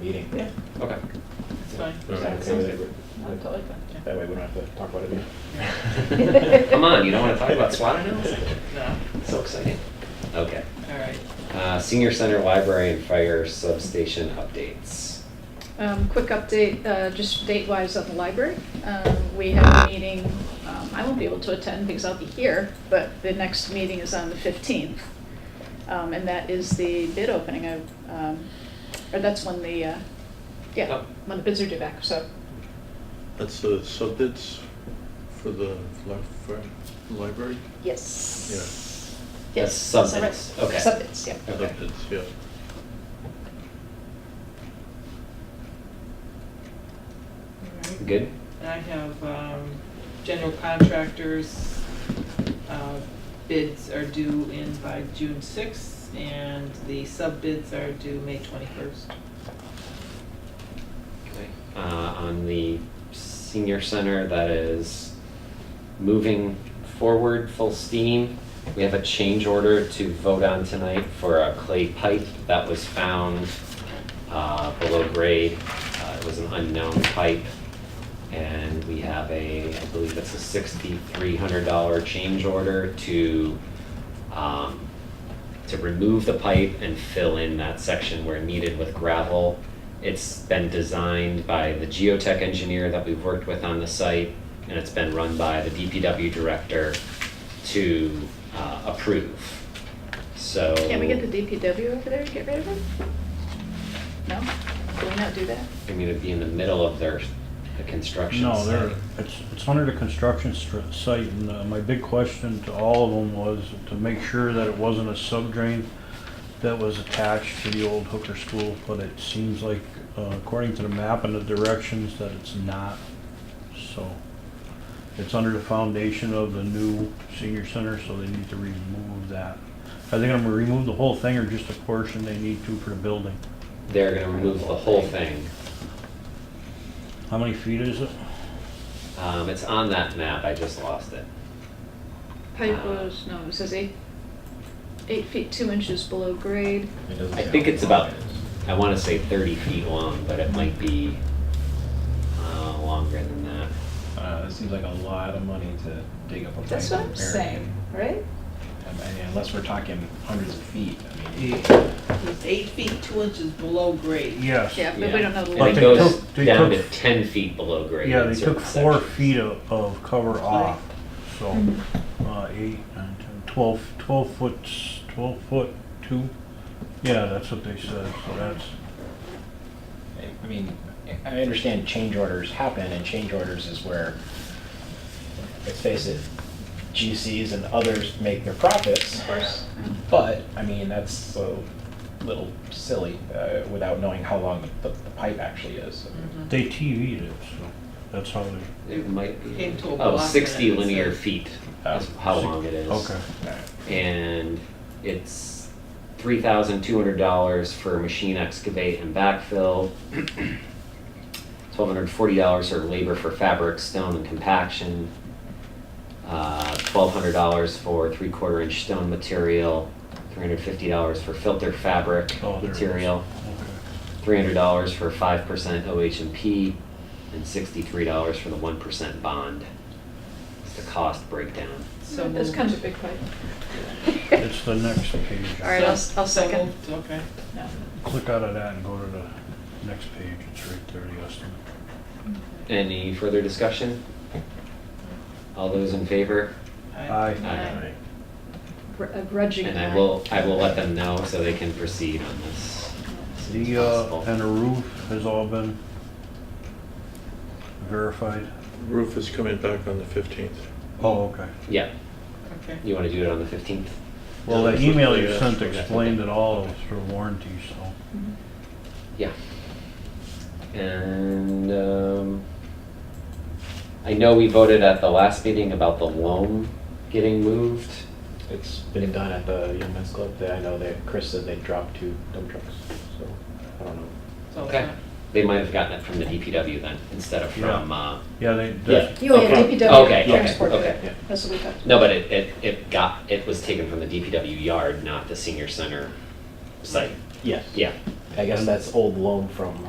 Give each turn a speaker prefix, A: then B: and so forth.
A: meeting.
B: Yeah,
A: Okay.
B: it's fine.
C: All right,
B: Sounds
C: okay with
B: good.
C: it.
B: I'm totally fine, yeah.
A: That way we don't have to talk about it.
C: Come on, you don't want to talk about SWOT analysis?
B: No,
C: So exciting. Okay.
B: all right.
C: Uh, Senior Center Library and Fire Substation updates.
D: Um, Quick update, uh, just date-wise at the library. Um, We have a meeting, um, I won't be able to attend because I'll be here, but the next meeting is on the 15th. Um, And that is the bid opening of, um, or that's when the, uh, yeah,
C: Oh.
D: when the bids are due back, so.
E: That's the subbids for the li- for library?
D: Yes.
C: Yeah.
D: Yes.
C: That's
D: so right.
C: subbids, okay.
D: Subbids, yeah.
C: Okay.
E: Subbids, yeah.
B: All right.
C: Good?
B: And I have um, general contractors, uh, bids are due in by June 6th, and the sub-bids are due May 21st.
C: Okay. Uh, on the senior center that is moving forward full steam. We have a change order to vote on tonight for a clay pipe that was found uh, below grade. Uh, It was an unknown pipe. And we have a, I believe it's a sixty-three hundred dollar change order to um, to remove the pipe and fill in that section where needed with gravel. It's been designed by the geotech engineer that we've worked with on the site, and it's been run by the DPW director to uh, approve. So.
D: Can we get the DPW over there to get rid of it? No? Can we not do that?
C: I mean, it'd be in the middle of their, the construction
F: No,
C: site.
F: they're, it's, it's under the construction str- site, and uh, my big question to all of them was to make sure that it wasn't a sub drain that was attached to the old Hooker School, but it seems like, uh, according to the map and the directions, that it's not, so. It's under the foundation of the new senior center, so they need to remove that. Are they gonna remove the whole thing or just a portion they need to for the building?
C: They're gonna remove the whole thing.
F: How many feet is it?
C: Um, it's on that map, I just lost it.
D: Pipe was, no, it says eight, eight feet, two inches below grade.
A: It doesn't
C: I
A: say
C: think
A: how
C: it's
A: long
C: about,
A: it
C: I wanna say thirty feet long, but it might be, uh, longer than that.
A: is. Uh, it seems like a lot of money to dig up a pipe.
D: That's what
A: and
D: I'm
A: bury it.
D: saying, right?
A: I mean, unless we're talking hundreds of feet, I mean.
B: It's eight feet, two inches below grade.
F: Yes.
D: Yeah, but we don't know the
C: And
F: But
C: it
F: they
D: length.
C: goes
F: took- they
C: down to
F: took-
C: ten feet below grade.
F: Yeah,
C: in
F: they
C: certain
F: took four
C: sections.
F: feet of, of cover off, so, uh, eight, nine, ten, twelve, twelve foot, s- twelve foot, two. Yeah, that's what they said, so that's,
A: I mean, I understand change orders happen, and change orders is where, let's face it, GCs and others make their profits. Of course. But, I mean, that's a little silly, uh, without knowing how long the, the pipe actually is.
F: they TV'd it, so, that's how they,
C: It might be.
B: Came to a
C: Oh,
B: block
C: sixty
B: and it's
C: linear
B: a-
C: feet is how long it is.
F: Uh, okay.
C: and it's three thousand two hundred dollars for machine excavate and backfill. Twelve hundred forty dollars for labor for fabric, stone and compaction. Uh, twelve hundred dollars for three-quarter inch stone material, three hundred fifty dollars for filter fabric
F: Oh, there it is.
C: material,
F: Okay.
C: three hundred dollars for five percent OHMP, and sixty-three dollars for the one percent bond. It's the cost breakdown.
B: So
D: This
B: moved.
D: kind of a big pipe.
F: It's the next page.
D: All right, I'll,
B: So-
D: I'll
B: so
D: second.
B: moved, Okay.
D: No.
F: Click out of that and go to the next page, it's right there, the estimate.
C: Any further discussion? All those in favor?
F: Aye.
C: Aye.
D: Gr- A grudging.
C: And I
D: act.
C: will, I will let them know so they can proceed on this. as soon as
F: The, uh,
C: possible.
F: and the roof has all been verified?
E: Roof is coming back on the 15th.
F: Oh, okay.
C: Yeah,
B: Okay.
C: you want to do it on the 15th?
F: Well, the
E: Yeah, that's what
F: email
E: they
F: you
E: asked
F: sent
E: for.
F: explained it all through warranty, so.
D: Mhm.
C: Yeah. And um, I know we voted at the last meeting about the loan getting moved.
A: It's been done at the Young Men's Club, They- I know that Chris said they dropped two dump trucks, so, I don't know.
B: So it's not-
C: They might have gotten it from the DPW then, instead of from, uh,
F: Yeah, they,
C: Yeah.
F: that's-
D: You have
A: Okay.
C: Okay,
D: DPW
C: okay,
D: transport
C: okay.
D: it. That's what we got.
C: no, but it, it, it got, it was taken from the DPW yard, not the senior center site.
A: Yes.
C: Yeah.
A: I guess that's old loan from